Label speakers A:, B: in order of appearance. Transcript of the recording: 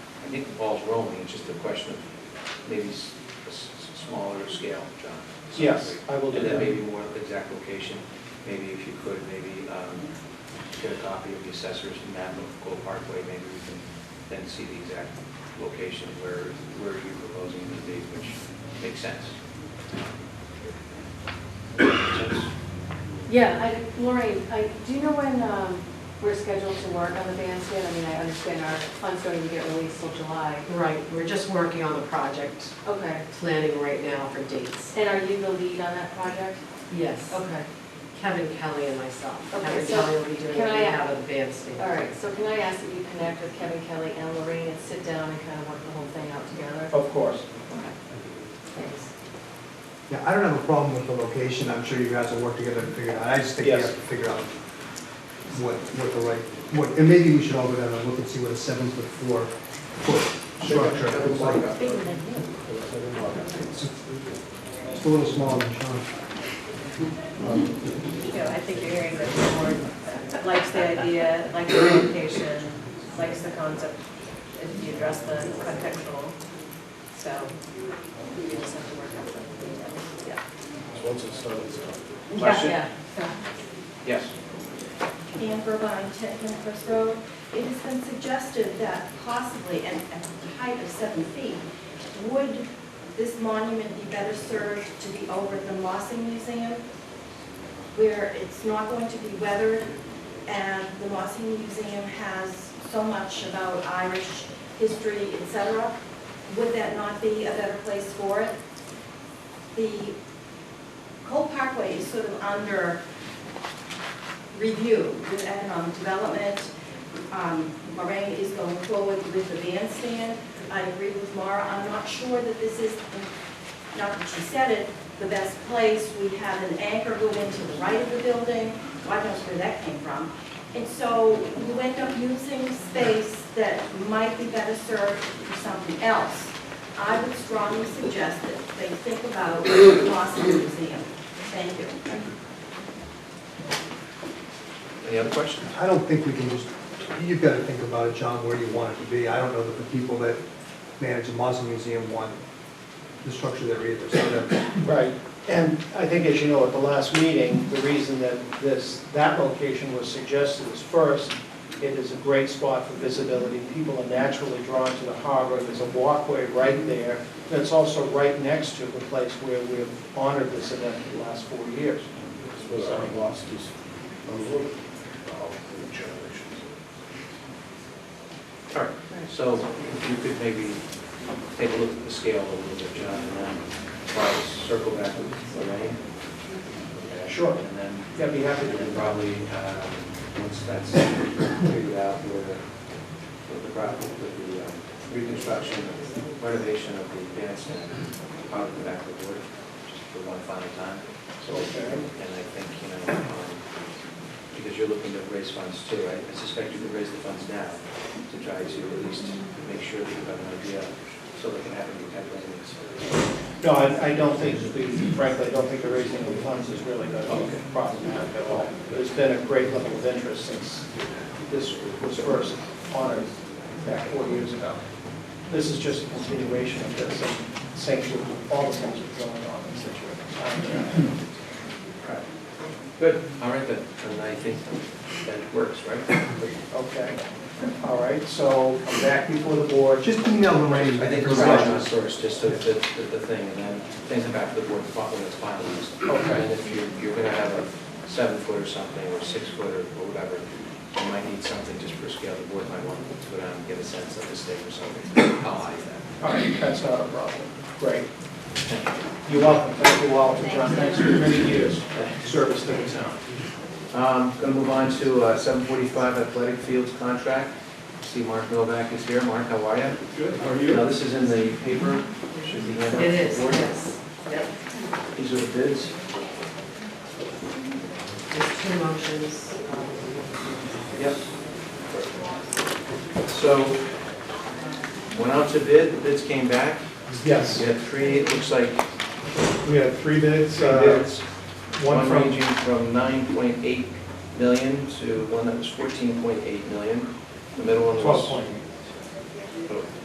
A: I think the ball's rolling, it's just a question of maybe s- a s- s- smaller scale, John. so
B: Yes,
A: maybe-
B: I will do
A: And then
B: that.
A: maybe more exact location, maybe if you could, maybe um, get a copy of the assessor's map of Gold Parkway, maybe we can then see the exact location where, where you're proposing it to be, which makes sense.
C: Yeah, I, Lorraine, I, do you know when, um, we're scheduled to work on the bandstand? I mean, I understand our funds don't even get released till July.
D: Right, we're just working on the project,
C: Okay,
D: planning right now for dates.
C: and are you the lead on that project?
D: Yes,
C: Okay,
D: Kevin Kelly and myself.
C: Okay,
D: Kevin
C: so
D: Kelly will be doing
C: can
D: the
C: I-
D: rehab of the bandstand.
C: all right, so can I ask that you connect with Kevin Kelly and Lorraine and sit down and kind of work the whole thing out together?
B: Of course.
C: Okay. Thanks.
E: Yeah, I don't have a problem with the location, I'm sure you guys will work together and figure it out, I just think you
B: Yes.
E: have to figure out what, what the right, what, and maybe we should all go down and look and see what a seven foot four foot structure looks like.
C: Bigger than you.
E: It's it's a little smaller than Sean.
F: you know, I think you're hearing that the board likes the idea, likes the location, likes the concept, if you address the contextual, so you just have to work out the details, yeah.
B: Once it's done, it's done.
A: Question?
C: Yeah,
A: Yes.
G: Amber Line, Ten Hillcrest Road. It has been suggested that possibly at at a height of seven feet, would this monument be better served to be over at the Mossing Museum, where it's not going to be weathered, and the Mossing Museum has so much about Irish history, et cetera. Would that not be a better place for it? The Cole Parkway is sort of under review with economic development. Um, Lorraine is going forward with the bandstand. I agree with Mara, I'm not sure that this is, not that she said it, the best place. We have an anchor go into the right of the building, God knows where that came from. And so you end up using space that might be better served for something else. I would strongly suggest that they think about the Boston Museum. Thank you.
A: Any other questions?
E: I don't think we can just, you've got to think about it, John, where you want it to be. I don't know that the people that manage the Mosley Museum want the structure there either, so that,
B: Right, and I think as you know, at the last meeting, the reason that this, that location was suggested is first, it is a great spot for visibility, people are naturally drawn to the harbor, there's a walkway right there, and it's also right next to the place where we have honored this event for the last four years. So-
A: All right, so if you could maybe take a look at the scale a little bit, John, and then I'll circle back with Lorraine.
B: Sure.
A: And then,
B: Yeah, I'd be happy
A: and
B: to do
A: then
B: that.
A: probably, uh, once that's figured out, where the, with the problem, with the um, reconstruction, renovation of the bandstand, out of the back of the board, just for one final time. So, and I think, you know, um, because you're looking to raise funds too, right? I suspect you could raise the funds now to try to at least make sure that you have an idea so that can happen contemporaneously.
B: No, I, I don't think, frankly, I don't think the raising of the funds is really going to be problematic at all. There's been a great level of interest since this was first honored back four years ago. This is just a continuation of this, and same with all the things that are going on in Situate.
A: Right. Good, all right then, and I think that works, right?
B: Okay, all right, so I'm back before the board.
E: just email Lorraine.
A: I think
E: for
A: the rationale
E: suggestions.
A: source, just so that, that the thing, and then things come back to the board when it's finalized.
B: Okay.
A: And if you're, you're gonna have a seven foot or something, or six foot or or whatever, you might need something just for scale, the board might want to go down and get a sense of the state or something, how high is that?
B: All right, that's not a problem. Great. You're welcome, thank you all, and John, thanks for many years of service to the town.
A: Um, gonna move on to seven forty-five athletic fields contract. See Mark Novak is here. Mark, how are you?
H: Good, how are
A: Now,
H: you?
A: this is in the paper, should be handed out. to
D: It is,
A: the board.
D: yes. Yep.
A: These are the bids.
D: Just two motions. um,
A: Yep. So, went out to bid, the bids came back, we
H: Yes,
A: had three, it looks like
H: we had three bids,
A: three
H: uh,
A: bids.
H: one
A: One
H: from,
A: ranging from nine point eight million to one that was fourteen point eight million. The middle one was.
H: twelve point eight.